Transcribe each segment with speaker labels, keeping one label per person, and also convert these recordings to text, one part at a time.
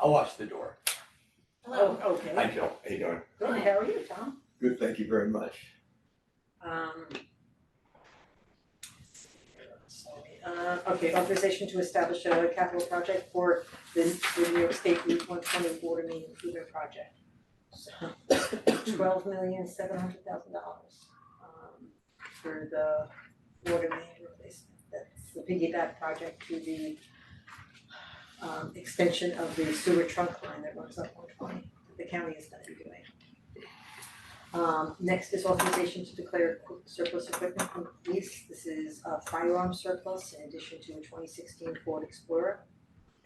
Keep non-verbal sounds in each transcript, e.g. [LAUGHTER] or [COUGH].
Speaker 1: I'll watch the door.
Speaker 2: Hello.
Speaker 3: Oh, okay.
Speaker 1: Hi, Jill. How you doing?
Speaker 3: Good, how are you, Tom?
Speaker 1: Good, thank you very much. [LAUGHS]
Speaker 3: Um. Uh, okay, authorization to establish a capital project for the, the New York State Route one twenty water main improvement project. So, twelve million, seven hundred thousand dollars, um, for the water main replacement. That's the piggyback project to the um, extension of the sewer trunk line that runs up one twenty, the county is gonna be doing. Um next is authorization to declare equi- surplus equipment from police, this is a firearm surplus in addition to a twenty sixteen Ford Explorer.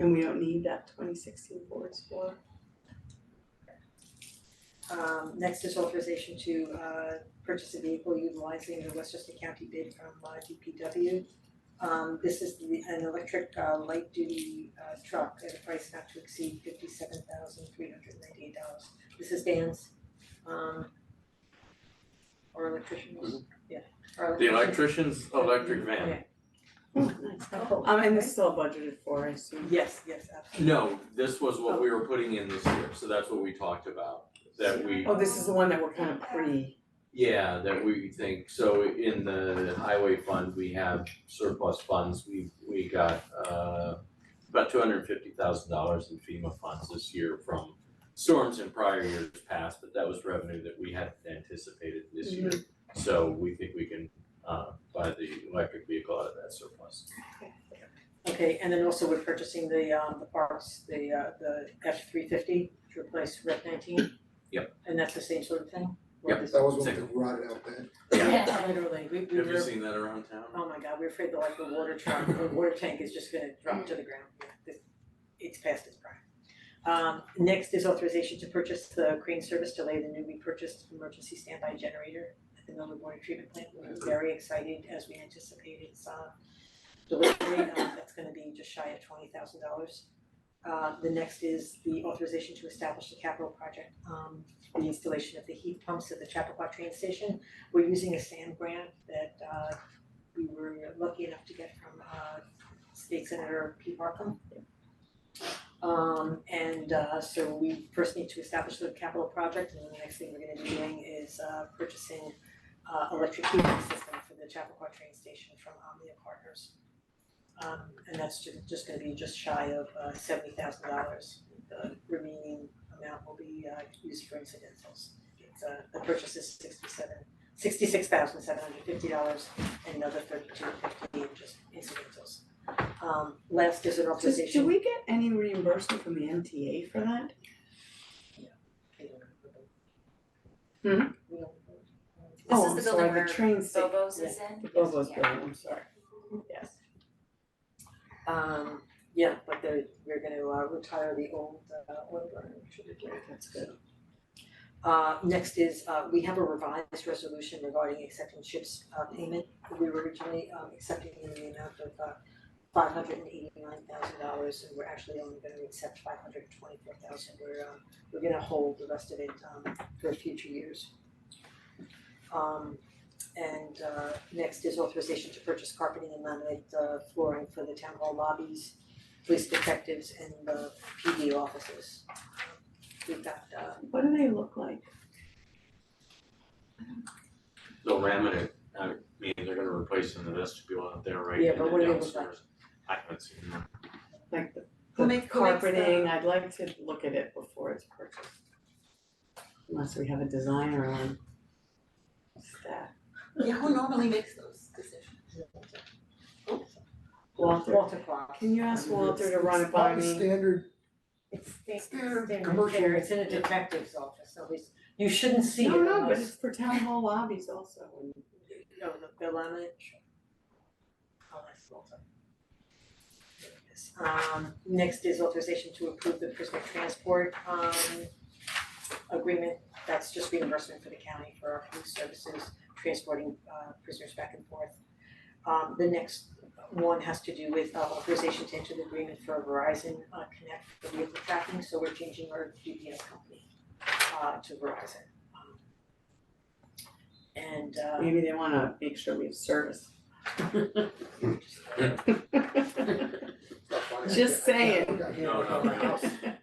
Speaker 2: And we don't need that twenty sixteen Ford Explorer.
Speaker 3: Um next is authorization to uh purchase a vehicle utilizing the Westchester County bid from uh DPW. Um this is the an electric uh light duty uh truck at a price not to exceed fifty seven thousand three hundred ninety eight dollars. This is Dan's um or electrician, yeah, our
Speaker 4: The
Speaker 3: electrician.
Speaker 4: electrician's electric van.
Speaker 3: Oh,
Speaker 2: Um, and this is all budgeted for, I assume.
Speaker 3: Yes, yes, absolutely.
Speaker 4: No, this was what we were putting in this year, so that's what we talked about, that we,
Speaker 2: Oh, this is the one that we're kind of pre,
Speaker 4: yeah, that we think, so in the highway fund, we have surplus funds, we, we got, uh, about two hundred and fifty thousand dollars in FEMA funds this year from storms in prior years past, but that was revenue that we hadn't anticipated this year. So we think we can, uh, buy the electric vehicle out of that surplus.
Speaker 3: Okay, and then also we're purchasing the um the parts, the uh the F three fifty to replace Rec nineteen.
Speaker 4: Yep.
Speaker 3: And that's the same sort of thing?
Speaker 4: Yep.
Speaker 3: Or this-
Speaker 5: That was one that rotted out bad.
Speaker 3: Yeah, literally, we we
Speaker 4: Have you
Speaker 3: were,
Speaker 4: seen that around town?
Speaker 3: oh my god, we we're afraid that like the water truck, the water tank is just gonna drop to the ground, Yeah, this- it's past its prime. Um next is authorization to purchase the crane service delay, the newly purchased emergency standby generator at the Millwood Water Treatment Plant, we're very excited as we anticipated, it's uh delivery, uh, that's gonna be just shy of twenty thousand dollars. Uh, the next is the authorization to establish the capital project, um, the installation of the heat pumps at the Chappaqua train station. We're using a SAM grant that, uh, we were lucky enough to get from, uh, State Senator Pete Markham. Um, and, uh, so we first need to establish the capital project, and the next thing we're gonna be doing is, uh, purchasing, uh, electric heating system for the Chappaqua train station from Omnia Partners. Um and that's ju- just gonna be just shy of uh seventy thousand dollars. The remaining amount will be uh used for incidentals. It's uh the purchase is sixty-seven, sixty-six thousand seven hundred fifty dollars and another thirty-two fifty in just incidentals. Um last is an
Speaker 2: Does,
Speaker 3: authorization.
Speaker 2: do we get any reimbursement from the MTA for that?
Speaker 3: We don't have the vote.
Speaker 2: Hmm?
Speaker 3: We don't have the vote.
Speaker 6: This
Speaker 2: Oh,
Speaker 6: is
Speaker 2: I'm
Speaker 6: the
Speaker 2: sorry,
Speaker 6: building where
Speaker 2: the train sta-
Speaker 6: Bobo's
Speaker 3: yeah.
Speaker 6: is in.
Speaker 2: the Bobo's
Speaker 6: Yeah.
Speaker 2: building, I'm sorry. Yes.
Speaker 3: Um yeah, but they're we're gonna uh retire the old uh oil burner, which would be great.
Speaker 2: That's good.
Speaker 3: Uh next is uh we have a revised resolution regarding accepting ships uh payment. We were originally um accepting in the amount of uh five hundred and eighty nine thousand dollars and we're actually only gonna accept five hundred and twenty four thousand. We're um we're gonna hold the rest of it um for future years. Um and uh next is authorization to purchase carpeting and laminate uh flooring for the town hall lobbies, police detectives and the PD offices. We've got uh
Speaker 2: What do they look like?
Speaker 4: They'll ram it, in. I mean, they're gonna replace in the vestibule out there, right,
Speaker 3: Yeah,
Speaker 4: in
Speaker 3: but
Speaker 4: the
Speaker 3: what do they look
Speaker 4: downstairs. I haven't seen them.
Speaker 2: Like the
Speaker 6: Who
Speaker 2: the
Speaker 6: make- who makes the-
Speaker 2: carpeting, I'd like to look at it before it's purchased. Unless we have a designer on staff.
Speaker 6: Yeah, who normally makes those decisions?
Speaker 2: Walter,
Speaker 3: Walter Clark.
Speaker 2: can you ask Walter to run it by
Speaker 5: It's not a
Speaker 2: me?
Speaker 5: standard,
Speaker 3: It's sta-
Speaker 5: Standard
Speaker 3: standard
Speaker 5: commercial.
Speaker 3: fare. it's in a detective's office, so it's, you shouldn't see it
Speaker 2: No, no, but
Speaker 3: unless.
Speaker 2: it's for town hall lobbies also, and
Speaker 3: No, no, the laminate. Oh, that's Walter. There it is. Um, next is authorization to approve the prisoner transport, um, agreement. That's just reimbursement for the county for our police services, transporting, uh, prisoners back and forth. Um, the next one has to do with uh, authorization to enter the agreement for Verizon uh, Connect for vehicle tracking, so we're changing our GPS company uh, to Verizon. Um, And uh,
Speaker 2: maybe they wanna make sure we have service.
Speaker 5: it's not funny.
Speaker 2: [LAUGHS] Just saying.
Speaker 5: Yeah, yeah.
Speaker 4: No, no, no.